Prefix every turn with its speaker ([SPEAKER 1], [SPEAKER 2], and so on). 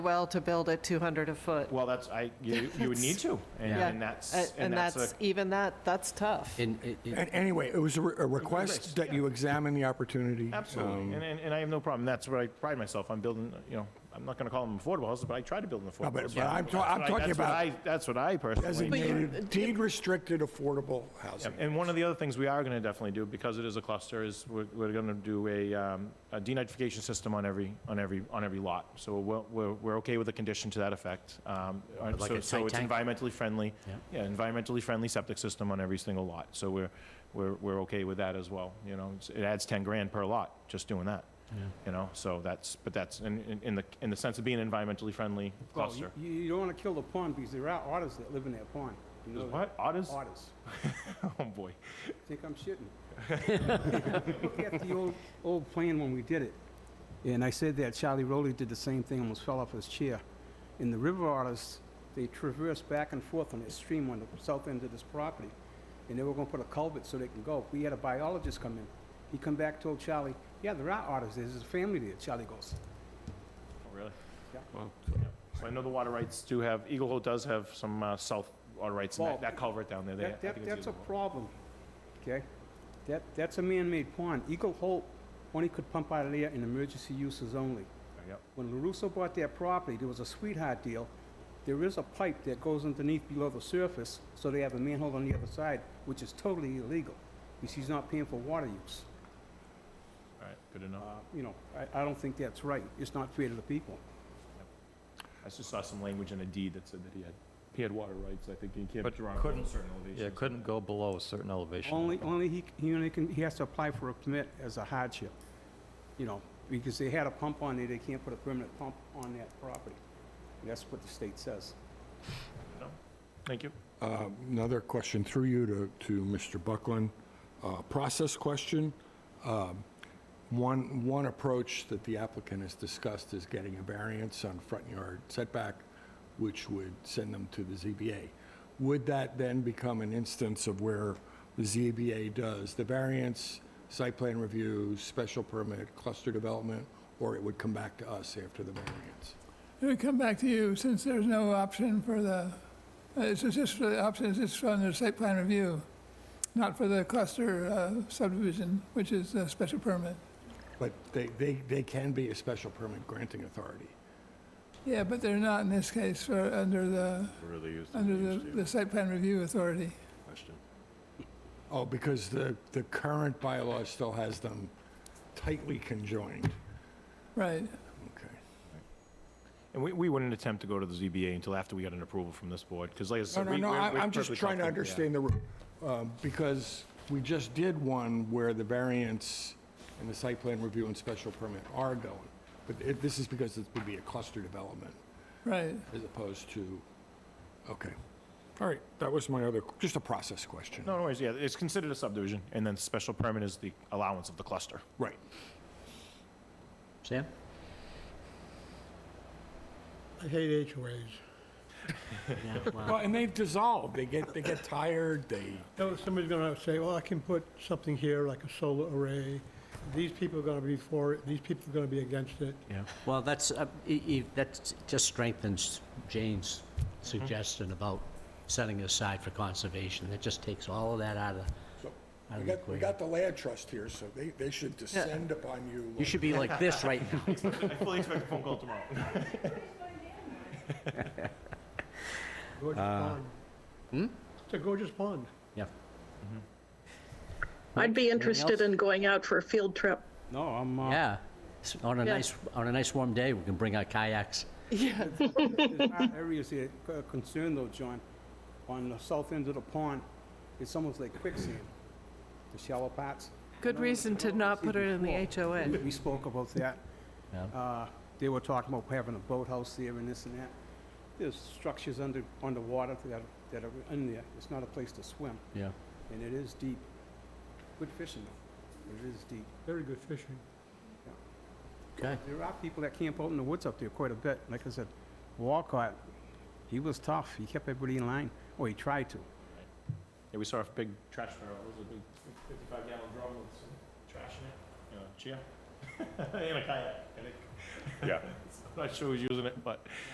[SPEAKER 1] well to build at 200 a foot.
[SPEAKER 2] Well, that's, I, you, you would need to, and
[SPEAKER 1] Yeah.
[SPEAKER 2] and that's,
[SPEAKER 1] A-
[SPEAKER 2] Uh, and that's, a-
[SPEAKER 1] even that, that's tough.
[SPEAKER 3] And it- it-
[SPEAKER 4] And anyway, it was a re- a request
[SPEAKER 2] list,
[SPEAKER 4] that you examine the opportunity.
[SPEAKER 2] absolutely,
[SPEAKER 4] um,
[SPEAKER 2] and, and and I have no problem, that's where I pride myself, on building, you know, I'm not gonna call them affordable houses, but I try to build an affordable.
[SPEAKER 4] but-
[SPEAKER 2] house.
[SPEAKER 4] but I'm
[SPEAKER 2] That's
[SPEAKER 4] ta-
[SPEAKER 2] what
[SPEAKER 4] I'm
[SPEAKER 2] I-
[SPEAKER 4] talking
[SPEAKER 2] that's what
[SPEAKER 4] about
[SPEAKER 2] I- That's what I personally,
[SPEAKER 4] Designated, deed-restricted affordable housing.
[SPEAKER 2] and one of the other things we are gonna definitely do, because it is a cluster, is we're, we're gonna do a, um, a denitrification system on every, on every, on every lot. So we're, we're, we're okay with a condition to that effect, um, uh,
[SPEAKER 3] Like
[SPEAKER 2] so,
[SPEAKER 3] a
[SPEAKER 2] so
[SPEAKER 3] tight
[SPEAKER 2] it's
[SPEAKER 3] tank?
[SPEAKER 2] environmentally friendly.
[SPEAKER 3] Yeah.
[SPEAKER 2] Yeah, environmentally friendly septic system on every single lot, so we're, we're, we're okay with that as well, you know, It's- it adds 10 grand per lot, just doing that, you know, so that's, but that's, in, in- in the, in the sense of being environmentally friendly
[SPEAKER 5] Well,
[SPEAKER 2] cluster.
[SPEAKER 5] You, you don't want to kill the pond because there are otters that live in that pond. You know that.
[SPEAKER 2] What, otters?
[SPEAKER 5] Otters.
[SPEAKER 2] Oh, boy.
[SPEAKER 5] Think I'm shitting. Look at the old, old plan when we did it. And I said that Charlie Rowley did the same thing, almost fell off his chair. And the river otters, they traverse back and forth on the stream on the south end of this property. And they were gonna put a culvert so they can go. We had a biologist come in. He come back, told Charlie, yeah, there are otters, there. there's a family there. Charlie goes,
[SPEAKER 2] Oh, really?
[SPEAKER 5] Yeah.
[SPEAKER 2] So I know the water rights do have, Eagle Hole does have some uh, south water rights, and
[SPEAKER 5] Well,
[SPEAKER 2] that- that culvert down there, they, I
[SPEAKER 5] That,
[SPEAKER 2] think
[SPEAKER 5] that,
[SPEAKER 2] it's
[SPEAKER 5] that's a
[SPEAKER 2] Eagle Hole.
[SPEAKER 5] problem, okay? That, that's a man-made pond. Eagle Hope only could pump out of there in emergency uses only.
[SPEAKER 2] Yep.
[SPEAKER 5] When LaRusso bought that property, there was a sweetheart deal. There is a pipe that goes underneath below the surface, so they have a manhole on the other side, which is totally illegal, because he's not paying for water use.
[SPEAKER 2] All right, good enough.
[SPEAKER 5] Uh, You know, I, I don't think that's right. It's not fair to the people.
[SPEAKER 2] I just saw some language in a deed that said that he had, he had water rights, I think, he can't
[SPEAKER 6] But
[SPEAKER 2] draw on
[SPEAKER 6] couldn't-
[SPEAKER 2] certain elevations.
[SPEAKER 6] Yeah, couldn't go below a certain elevation.
[SPEAKER 5] Only, only he, he only can, he has to apply for a permit as a hardship, you know, because they had a pump on there, they can't put a permanent pump on that property. That's what the state says.
[SPEAKER 2] Thank you.
[SPEAKER 4] Uh, Another question through you to, to Mr. Buckland, Uh, process question. Um, One, one approach that the applicant has discussed is getting a variance on front yard setback, which would send them to the ZBA. Would that then become an instance of where the ZBA does the variance, site plan review, special permit, cluster development, or it would come back to us after the variance?
[SPEAKER 7] It would come back to you, since there's no option for the, uh, it's just, for the option is just for the site plan review, not for the cluster uh, subdivision, which is a special permit.
[SPEAKER 4] But they, they, they can be a special permit granting authority.
[SPEAKER 7] Yeah, but they're not in this case for, under the, under the, the site plan review authority.
[SPEAKER 4] Oh, because the, the current bylaw still has them tightly conjoined.
[SPEAKER 7] Right,
[SPEAKER 4] Okay.
[SPEAKER 2] And we, we wouldn't attempt to go to the ZBA until after we got an approval from this board, because like I
[SPEAKER 4] No,
[SPEAKER 2] said,
[SPEAKER 4] no,
[SPEAKER 2] we-
[SPEAKER 4] no,
[SPEAKER 2] we're-
[SPEAKER 4] I-
[SPEAKER 2] we're
[SPEAKER 4] I'm just
[SPEAKER 2] perfectly
[SPEAKER 4] trying to
[SPEAKER 2] confident,
[SPEAKER 4] understand the, ru- um, because we just did one where the variance and the site plan review and special permit are going. But it- this is because it would be a cluster development
[SPEAKER 7] right.
[SPEAKER 4] as opposed to, okay. All right, that was my other, just a process question.
[SPEAKER 2] yeah. No, no worries, yeah, it's considered a subdivision, and then special permit is the allowance of the cluster.
[SPEAKER 4] Right.
[SPEAKER 3] Sam?
[SPEAKER 8] I hate HOAs.
[SPEAKER 4] Well, and they've dissolved, they get, they get tired, they.
[SPEAKER 8] Now, Somebody's gonna say, well, I can put something here, like a solar array. These people are gonna be for it, these people are gonna be against it.
[SPEAKER 3] Well, that's, uh, e- e- that just strengthens Jane's
[SPEAKER 4] Mm-hmm.
[SPEAKER 3] suggestion about setting it aside for conservation. That just takes all of that out of,
[SPEAKER 4] So, We
[SPEAKER 3] out of
[SPEAKER 4] got,
[SPEAKER 3] the
[SPEAKER 4] we
[SPEAKER 3] equation.
[SPEAKER 4] got the land trust here, so they, they should descend upon you.
[SPEAKER 3] You
[SPEAKER 4] like-
[SPEAKER 3] should be like this right now.
[SPEAKER 2] I fully expect a phone call tomorrow.
[SPEAKER 8] Gorgeous pond. It's a gorgeous pond.
[SPEAKER 3] Yeah.
[SPEAKER 9] I'd be
[SPEAKER 3] Anything
[SPEAKER 9] interested
[SPEAKER 3] else?
[SPEAKER 9] in going out for a field trip.
[SPEAKER 5] No, I'm, uh,
[SPEAKER 3] Yeah. S- On a
[SPEAKER 9] Yeah.
[SPEAKER 3] nice, on a nice warm day, we can bring our kayaks.
[SPEAKER 5] there's our areas that are concerned though, John, on the south end of the pond, it's almost like quicksand, the shallow parts.
[SPEAKER 1] Good reason to not put it in the HOA.
[SPEAKER 5] We- We spoke about that.
[SPEAKER 3] Yeah.
[SPEAKER 5] Uh, They were talking about having a boathouse there and this and that. There's structures under, underwater that, are- that are in there. It's not a place to swim,
[SPEAKER 3] Yeah.
[SPEAKER 5] and it is deep. Good fishing though, but it is deep.
[SPEAKER 8] Very good fishing.
[SPEAKER 3] Okay.
[SPEAKER 5] There are people that camp out in the woods up there quite a bit. Like I said, Walcott, he was tough. He kept everybody in line, or he tried to.
[SPEAKER 2] Yeah, we saw a big trash barrel, it was a big 55 gallon drum with some trash in it, you know, cheer, and a kayak, I think. Yeah. Not sure who's using it, but